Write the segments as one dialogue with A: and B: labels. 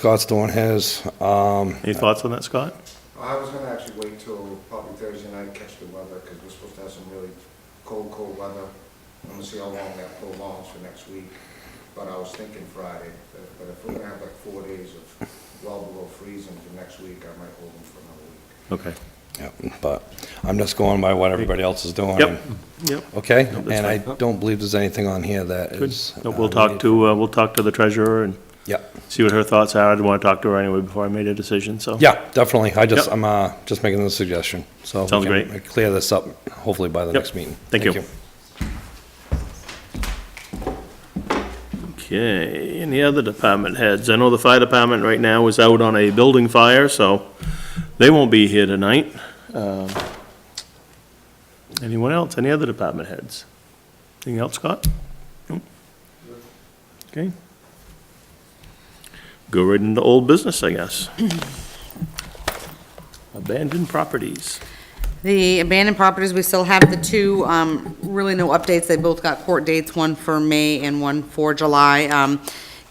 A: Scottsdale has, um,
B: Any thoughts on that, Scott?
C: I was gonna actually wait till probably Thursday night, catch the weather, because we're supposed to have some really cold, cold weather. I'm gonna see how long that prolongs for next week, but I was thinking Friday, but but if we're gonna have like four days of well below freezing for next week, I might hold them for another week.
B: Okay.
A: yeah, but I'm just going by what everybody else is doing.
B: Yep, yep.
A: Okay,
B: Yep, that's
A: and I
B: fine.
A: don't believe there's anything on here that
B: Good.
A: is.
B: No,
A: uh,
B: We'll talk
A: needed.
B: to, uh, we'll talk to the treasurer and
A: Yep,
B: see what her thoughts are. I didn't want to talk to her anyway before I made a decision, so.
A: yeah, definitely, I just,
B: Yep.
A: I'm, uh, just making the suggestion, so. we
B: Sounds
A: can
B: great.
A: Clear this up, hopefully by the
B: Yep.
A: next meeting.
B: Thank you. Okay, any other department heads? I know the fire department right now is out on a building fire, so they won't be here tonight. Um, Anyone else? Any other department heads? Anything else, Scott? No? Okay. Go right into old business, I guess. Abandoned properties.
D: The abandoned properties, we still have the two, um, really no updates. They both got court dates, one for May and one for July. Um,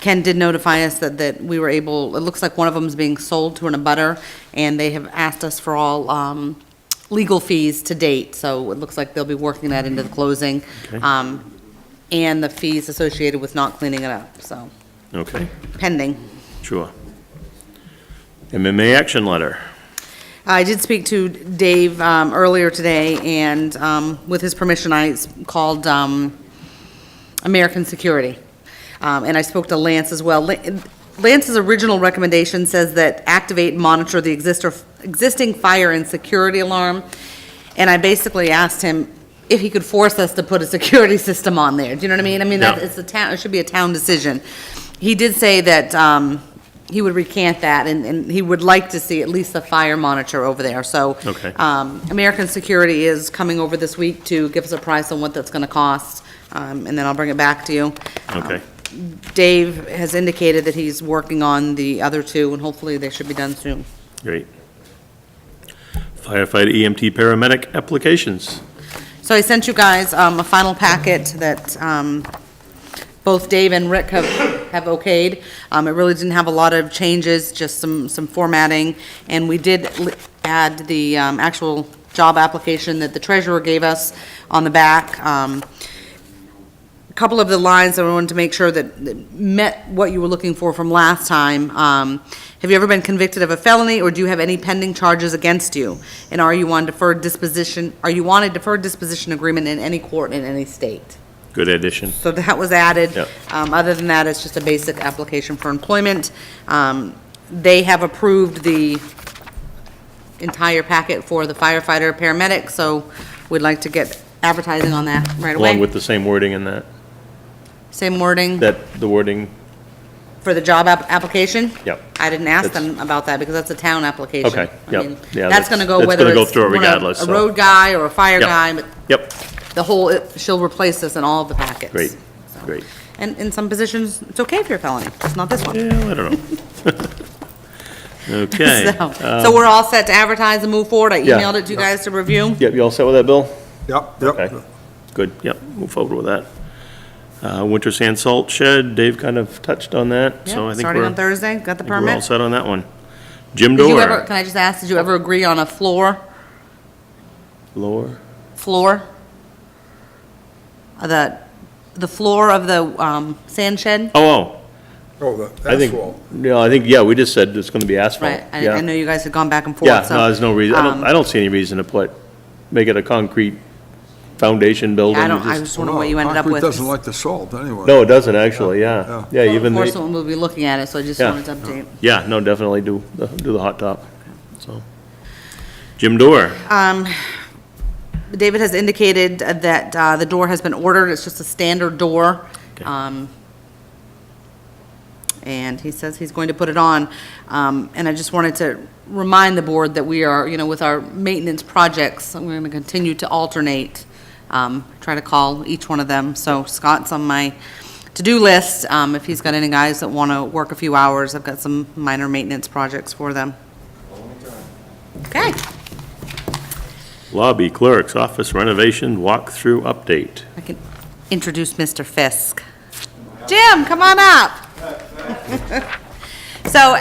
D: Ken did notify us that, that we were able, it looks like one of them is being sold to an abutter, and they have asked us for all, um, legal fees to date, so it looks like they'll be working that into the closing.
B: Okay.
D: Um, and the fees associated with not cleaning it up, so
B: Okay,
D: pending.
B: sure. MMA action letter.
D: I did speak to Dave um, earlier today, and um, with his permission, I s- called um, American Security. Um, And I spoke to Lance as well. Lan- Lance's original recommendation says that activate and monitor the exister- existing fire and security alarm. And I basically asked him if he could force us to put a security system on there. Do you know what I mean? I mean, that-
B: Yeah.
D: it's a town, it should be a town decision. He did say that um, he would recant that, and- and he would like to see at least a fire monitor over there, so.
B: Okay.
D: um, American Security is coming over this week to give us a price on what that's going to cost, um, and then I'll bring it back to you.
B: Okay,
D: Dave has indicated that he's working on the other two, and hopefully they should be done soon.
B: great. Firefighter EMT paramedic applications.
D: So I sent you guys um, a final packet that um, both Dave and Rick have have okayed. Um, It really didn't have a lot of changes, just some some formatting. And we did li- add the um, actual job application that the treasurer gave us on the back. Um, a couple of the lines that I wanted to make sure that that met what you were looking for from last time. Um, Have you ever been convicted of a felony, or do you have any pending charges against you? And are you on deferred disposition, are you on a deferred disposition agreement in any court in any state?
B: Good addition.
D: So that was added.
B: Yeah.
D: Um, Other than that, it's just a basic application for employment. Um, They have approved the entire packet for the firefighter, paramedic, so we'd like to get advertising on that right away.
B: Along with the same wording in that,
D: Same wording.
B: that, the wording,
D: For the job app- application?
B: Yep.
D: I didn't
B: That's-
D: ask them about that because that's a town application.
B: Okay,
D: I
B: yep.
D: mean,
B: Yeah,
D: That's gonna
B: that's-
D: go
B: that's
D: whether
B: gonna go
D: it's
B: through
D: one of-
B: regardless,
D: A
B: so.
D: road guy or a fire
B: Yep.
D: guy, but
B: yep,
D: the whole, it- she'll replace this in all of the packets.
B: great,
D: So-
B: great.
D: And in some positions, it's okay if you're a felony, it's not this one.
B: Yeah, I don't know. Okay. um, uh,
D: So, so we're all set to advertise and move forward. I
B: Yeah.
D: emailed it to you guys to review.
B: Yep, you all set with that, Bill?
C: Yep,
B: Okay, good, yep, move forward with that. Uh, winter sand salt shed, Dave kind of touched on that, so I
D: Yep,
B: think
D: Starting
B: we're, I
D: on
B: think
D: Thursday, got the
B: we're all
D: permit.
B: set on that one. Jim
D: Did you ever,
B: Door,
D: can I just ask, did you ever agree on a floor,
B: lower,
D: floor? Uh, The, the floor of the, um, sand shed?
B: oh, oh,
C: Oh, the
B: I think, no, I think, yeah, we just said it's gonna be asphalt.
D: Right, I,
B: yeah.
D: I know you guys had gone back and
B: Yeah,
D: forth, so.
B: no, there's no reason, I don't,
D: um,
B: I don't see any reason to put, make it a concrete foundation building.
D: I don't, I
B: Just-
D: just wonder what you ended up
E: Concrete
D: with.
E: doesn't like the salt, anyway.
B: No, it doesn't actually, yeah. Yeah,
D: Well,
B: even
D: Of course,
B: the,
D: someone will be looking at it, so I just
B: Yeah.
D: wanted to update.
B: yeah, no, definitely do, the- do the hot top, so. Jim Door,
D: um, David has indicated that, uh, the door has been ordered, it's just a standard door.
B: Okay.
D: Um, and he says he's going to put it on. Um, and I just wanted to remind the board that we are, you know, with our maintenance projects, we're gonna continue to alternate, um, try to call each one of them. So Scott's on my to-do list, um, if he's got any guys that wanna work a few hours, I've got some minor maintenance projects for them. Okay,
B: lobby clerk's office renovation walkthrough update.
D: I can introduce Mr. Fisk. Jim, come on up. So